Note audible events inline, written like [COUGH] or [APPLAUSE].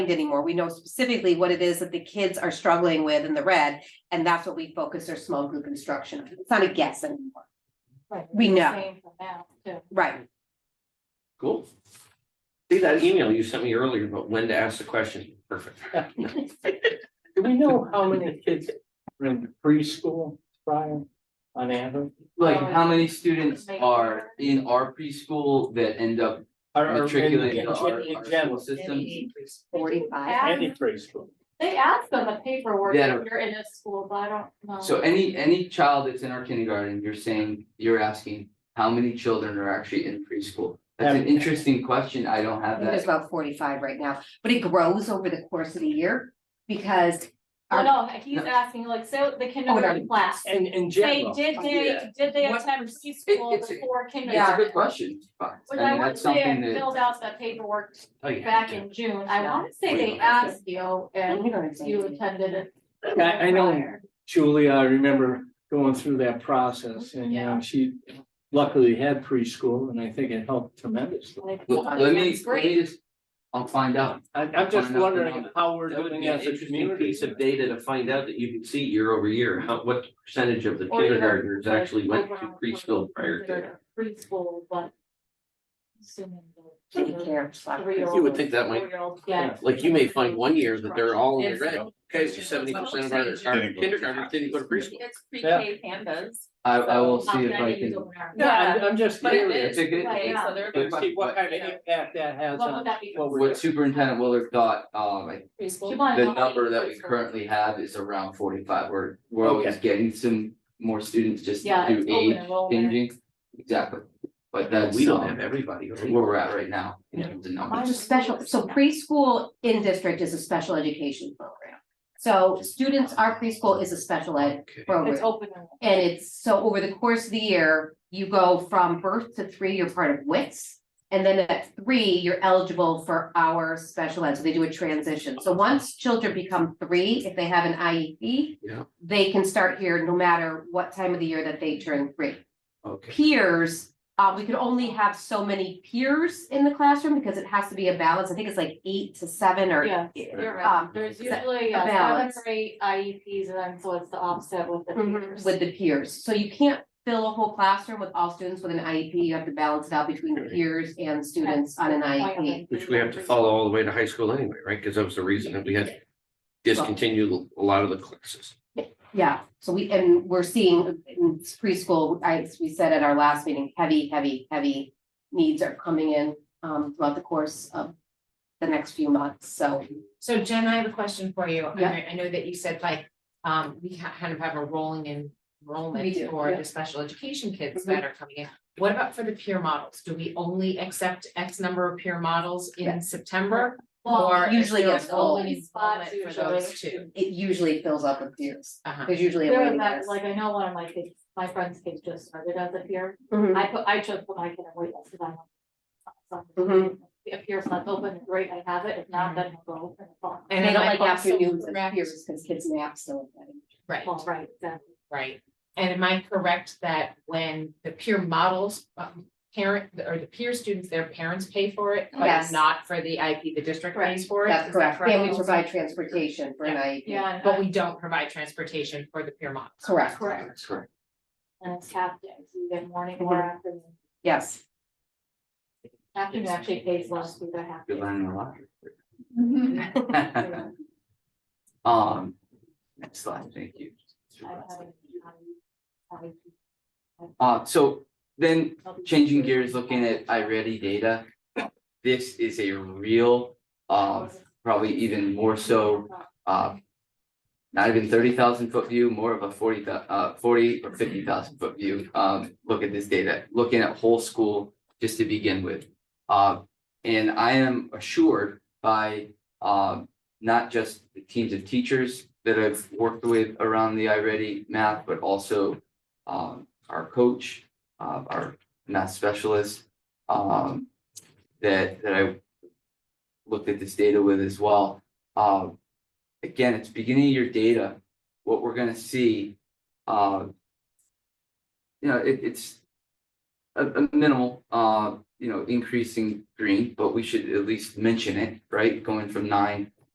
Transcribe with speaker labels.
Speaker 1: anymore. We know specifically what it is that the kids are struggling with in the red, and that's what we focus our small group instruction. on. It's not a guess anymore,
Speaker 2: Right.
Speaker 1: We
Speaker 2: it's the
Speaker 1: know.
Speaker 2: same for now, too.
Speaker 1: right?
Speaker 3: Cool. See that email you sent me earlier, but when to ask the question, perfect.
Speaker 4: Do we know how many kids are in preschool, Brian, on average?
Speaker 5: Like,
Speaker 2: Oh,
Speaker 5: how many students are in our preschool that end up
Speaker 4: Are- are in-
Speaker 5: matriculating
Speaker 4: in-
Speaker 5: into our,
Speaker 4: in
Speaker 5: our school
Speaker 4: general,
Speaker 5: system?
Speaker 1: Forty-five.
Speaker 4: Any preschool.
Speaker 2: They ask on the paperwork
Speaker 5: Yeah, I
Speaker 2: if you're in a school, but I don't know.
Speaker 5: So any, any child that's in our kindergarten, you're saying, you're asking, how many children are actually in preschool? That's an
Speaker 4: Um,
Speaker 5: interesting question, I don't
Speaker 1: I
Speaker 5: have
Speaker 1: think There's
Speaker 5: that,
Speaker 1: about forty-five right now, but it grows over the course of the year because
Speaker 2: Oh, no, he's
Speaker 5: No.
Speaker 2: asking like, so the kindergarten class,
Speaker 4: And
Speaker 2: they,
Speaker 4: in general,
Speaker 2: did
Speaker 5: Yeah.
Speaker 2: they, did they
Speaker 5: What-
Speaker 2: attend preschool
Speaker 5: it's a-
Speaker 2: before
Speaker 5: it's a
Speaker 2: kindergarten?
Speaker 5: good question, but, I
Speaker 2: Which I
Speaker 5: mean,
Speaker 2: want
Speaker 5: that's
Speaker 2: to say,
Speaker 5: something
Speaker 2: I
Speaker 5: that,
Speaker 2: filled out that paperwork
Speaker 3: Oh, yeah.
Speaker 2: back in June, I
Speaker 1: Yeah.
Speaker 2: want to say
Speaker 3: Wait,
Speaker 2: they
Speaker 3: okay.
Speaker 2: asked you
Speaker 1: and
Speaker 2: and
Speaker 1: we don't have to-
Speaker 2: you attended it.
Speaker 4: I, I know
Speaker 2: prior.
Speaker 4: Julia, I remember going through that process and, you know, she luckily had preschool and I think it helped tremendously.
Speaker 2: Like,
Speaker 5: let let me,
Speaker 2: that's
Speaker 5: let
Speaker 2: great.
Speaker 5: me just, I'll find out.
Speaker 4: I, I'm just
Speaker 5: Why not?
Speaker 4: wondering how we're
Speaker 3: That would
Speaker 4: doing
Speaker 3: be an
Speaker 4: as a
Speaker 3: interesting
Speaker 4: community.
Speaker 3: piece of data to find out that you can see year over year, how, what percentage of the
Speaker 2: Or even,
Speaker 3: kindergartners
Speaker 2: like,
Speaker 3: actually went to
Speaker 2: overall,
Speaker 3: preschool prior to.
Speaker 2: they're Preschool, but. assuming the-
Speaker 1: Take care of slack.
Speaker 2: Three-year-old.
Speaker 3: You would think that might-
Speaker 2: Four-year-old, yeah.
Speaker 3: Like you may find one year that they're all in the
Speaker 6: It's-
Speaker 3: red, okay, so seventy percent of our our kindergartners didn't go to preschool.
Speaker 6: It's pre-K pandas.
Speaker 5: I, I will
Speaker 2: So,
Speaker 5: see if
Speaker 2: how
Speaker 5: I
Speaker 2: can use
Speaker 5: can,
Speaker 2: open hours?
Speaker 4: No, I'm, I'm just
Speaker 6: But it
Speaker 4: curious.
Speaker 5: it's a good,
Speaker 2: Right.
Speaker 5: it's-
Speaker 6: So they're
Speaker 5: But-
Speaker 4: See what kind of impact that has
Speaker 2: What would
Speaker 4: on.
Speaker 2: that be?
Speaker 4: what we're-
Speaker 5: what Superintendent Willard thought, um, I
Speaker 2: She
Speaker 6: preschool.
Speaker 2: wanted
Speaker 5: The
Speaker 2: to know
Speaker 5: number that we
Speaker 2: preschool.
Speaker 5: currently have is around forty-five, we're, we're always
Speaker 4: Okay.
Speaker 5: getting some more students just
Speaker 2: Yeah, it's
Speaker 5: through
Speaker 2: open
Speaker 5: age
Speaker 2: enrollment.
Speaker 5: changing. Exactly, but
Speaker 3: But
Speaker 5: that's,
Speaker 3: we don't
Speaker 5: um,
Speaker 3: have everybody. right?
Speaker 5: where we're at right now, in terms of
Speaker 1: It's
Speaker 5: numbers.
Speaker 1: a special, so preschool in district is a special education program. So students, our preschool is a special ed
Speaker 3: Okay.
Speaker 1: program.
Speaker 2: It's open.
Speaker 1: And it's, so over the course of the year, you go from birth to three, you're part of WITS. And then at three, you're eligible for our special ed, so they do a transition. So once children become three, if they have an IEP.
Speaker 3: Yeah.
Speaker 1: They can start here no matter what time of the year that they turn three.
Speaker 3: Okay,
Speaker 1: Peers, uh, we could only have so many peers in the classroom because it has to be a balance. I think it's like eight to seven or.
Speaker 2: Yeah, you're right.
Speaker 1: Um,
Speaker 2: There's
Speaker 1: is that
Speaker 2: usually
Speaker 1: a
Speaker 2: uh, seven
Speaker 1: balance?
Speaker 2: or eight IEPs and E then so it's the offset Mm-hmm. with the peers.
Speaker 1: with the peers, so you can't fill a whole classroom with all students with an IEP, you have to balance it out between the peers and students on
Speaker 2: E
Speaker 1: an E IEP.
Speaker 3: which we have to follow all the way to high school anyway, right? Because that was the reason that we had discontinued a lot of the classes.
Speaker 1: Yeah, so we, and we're seeing in preschool, I, as we said at our last meeting, heavy, heavy, heavy needs are coming in, um, throughout the course of the next few months, so.
Speaker 6: So Jen, I have a question for you. And
Speaker 1: Yeah.
Speaker 6: I, I know that you said like, um, we ha- kind of have a rolling
Speaker 1: We
Speaker 6: enrollment
Speaker 1: do,
Speaker 6: for
Speaker 1: yeah. Mm-hmm.
Speaker 6: the special education kids that are coming in. What about for the peer models? Do we only accept X number of peer models
Speaker 1: Yeah.
Speaker 6: in September?
Speaker 2: Well,
Speaker 6: Or is
Speaker 1: usually
Speaker 6: there
Speaker 1: it's
Speaker 6: a rolling
Speaker 2: only spots
Speaker 6: enrollment for those two?
Speaker 1: It usually fills up with peers,
Speaker 6: Uh-huh.
Speaker 1: there's usually a
Speaker 2: There was
Speaker 1: waiting
Speaker 2: that,
Speaker 1: list.
Speaker 2: like, I know one of my kids, my friend's kids just started as a peer.
Speaker 1: Mhm.
Speaker 2: I put, I chose what I can avoid because I. want-
Speaker 1: Mhm.
Speaker 2: If yours not open, great, I have it. If not, then I'll go open the phone.
Speaker 6: And
Speaker 1: They
Speaker 6: am
Speaker 1: don't
Speaker 6: I
Speaker 1: like
Speaker 6: also
Speaker 1: afternoons and
Speaker 6: correct-
Speaker 1: peers, because kids nap still.
Speaker 6: Right.
Speaker 2: Well, right, exactly.
Speaker 6: Right, and am I correct that when the peer models, um, parent, or the peer students, their parents pay for it, but
Speaker 1: Yes.
Speaker 6: not for the IP, the district pays for it?
Speaker 1: That's
Speaker 6: Is that
Speaker 1: correct, and we provide transportation for an E IEP.
Speaker 2: Yeah, and
Speaker 6: But
Speaker 2: I-
Speaker 6: we don't provide transportation for the peer models.
Speaker 1: Correct,
Speaker 2: correct.
Speaker 5: That's correct.
Speaker 2: And it's half days, you get morning or afternoon.
Speaker 1: yes.
Speaker 2: Afternoon actually pays less through the half.
Speaker 5: You're
Speaker 2: day.
Speaker 5: learning
Speaker 2: [LAUGHS]
Speaker 5: a lot. [LAUGHS] Um, next slide, thank you.
Speaker 2: I haven't- I haven't-
Speaker 5: Uh, so then
Speaker 2: I'll be-
Speaker 5: changing gears, looking at iReady data. This is a real, uh, probably even more so, uh. Not even thirty thousand foot view, more of a forty uh, forty or fifty thousand foot view, um, look at this data, looking at whole school just to begin with. Uh, and I am assured by, um, not just the teams of teachers that I've worked with around the iReady math, but also. Um, our coach, uh, our not specialist, um, that, that I looked at this data with as well. Um, again, it's beginning of your data, what we're gonna see, uh, you know, it, it's a, a minimal, uh, you know, increasing green, but we should at least mention it, right? Going from nine